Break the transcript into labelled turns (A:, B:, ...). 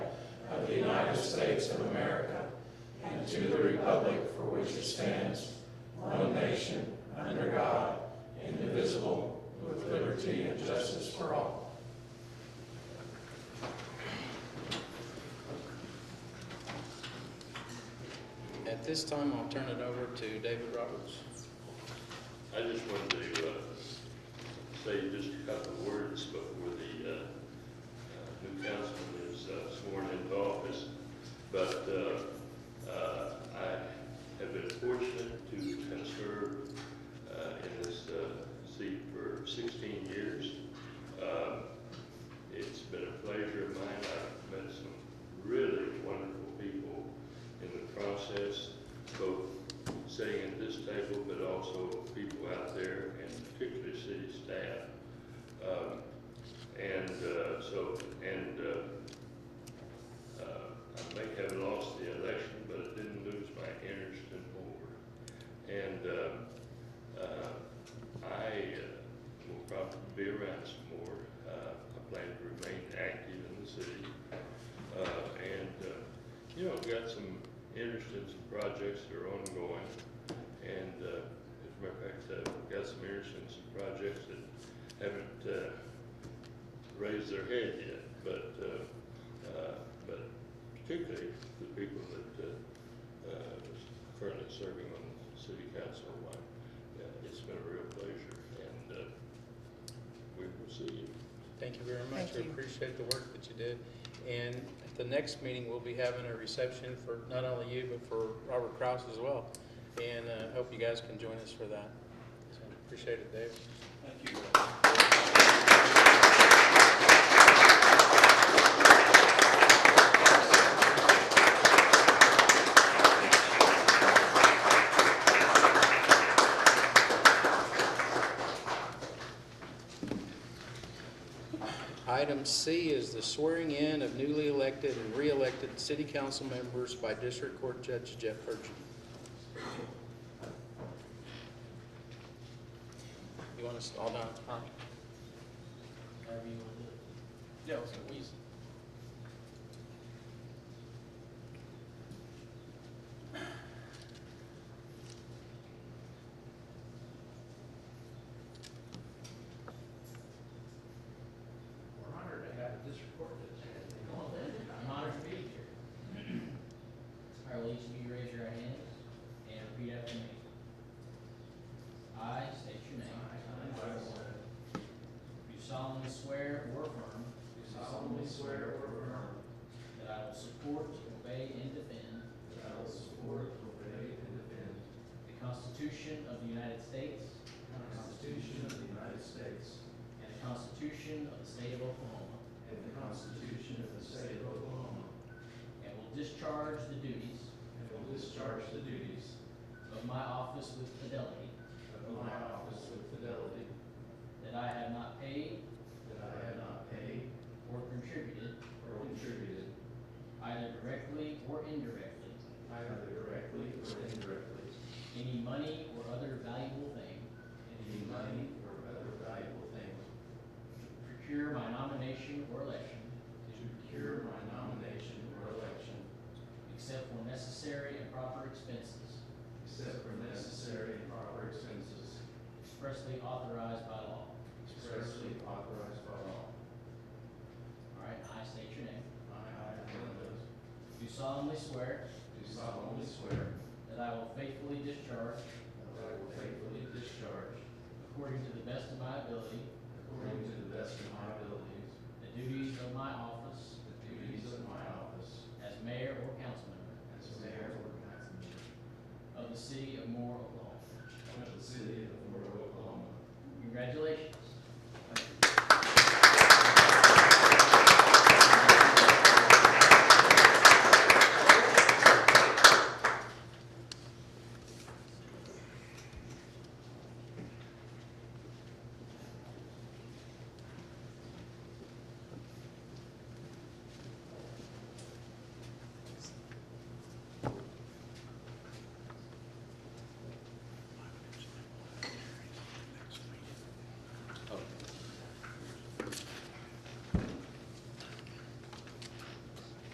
A: of the United States of America and to the republic for which it stands, one nation, under God, indivisible, with liberty and justice for all.
B: At this time, I'll turn it over to David Roberts.
C: I just wanted to uh, say just a couple of words before the uh, uh, new councilman is uh, sworn into office. But uh, uh, I have been fortunate to have served uh, in this uh, seat for 16 years. Um, It's been a pleasure of mine. I've met some really wonderful people in the process, both sitting at this table, but also people out there, and particularly city staff. Um, And uh, so, and uh, uh, I may have lost the election, but it didn't lose my interest in board. And uh, uh, I uh, will probably be around some more. Uh, I plan to remain active in the city. Uh, And, uh, you know, I've got some interest in some projects that are ongoing, and, uh, as a matter of fact, I've got some interest in some projects that haven't, uh, raised their head yet, but, uh, uh, but particularly the people that, uh, uh, currently serving on the city council, like, uh, it's been a real pleasure, and, uh, we will see you.
B: Thank you very much.
D: Thank
B: We
D: you.
B: appreciate the work that you did. And at the next meeting, we'll be having a reception for not only you, but for Robert Kraus as well. And I hope you guys can join us for that. So Appreciate it, Dave.
E: Thank you.
B: Item C is the swearing in of newly elected and re-elected city council members by District Court Judge Jeff Purchase. You want us all down at the front? However you want to do it.
E: Yeah, let's go.
F: We're honored to have this recorded.
G: I'm honored to be here. I will each of you raise your right hand and repeat after me. I state your name. You solemnly swear or affirm
F: Do solemnly swear or affirm
G: that I will support, obey, and defend
F: that I will support, obey, and defend
G: the Constitution of the United States
F: the Constitution of the United States
G: and the Constitution of the State of Oklahoma,
F: and the Constitution of the State of Oklahoma,
G: and will discharge the duties
F: and will discharge the duties
G: of my office with fidelity,
F: of my office with fidelity,
G: that I have not paid
F: that I have not paid
G: or contributed
F: or contributed
G: either directly or indirectly
F: either directly or indirectly
G: any money or other valuable thing
F: any money or other valuable thing
G: to procure my nomination or election,
F: to procure my nomination or election
G: except for necessary and proper expenses
F: except for necessary and proper expenses
G: expressly authorized by law.
F: expressly authorized by law.
G: All right, I state your name.
F: I, Linda,
G: Do solemnly swear
F: do solemnly swear
G: that I will faithfully discharge,
F: that I will faithfully discharge,
G: according to the best of my ability,
F: according to the best of my abilities,
G: the duties of my office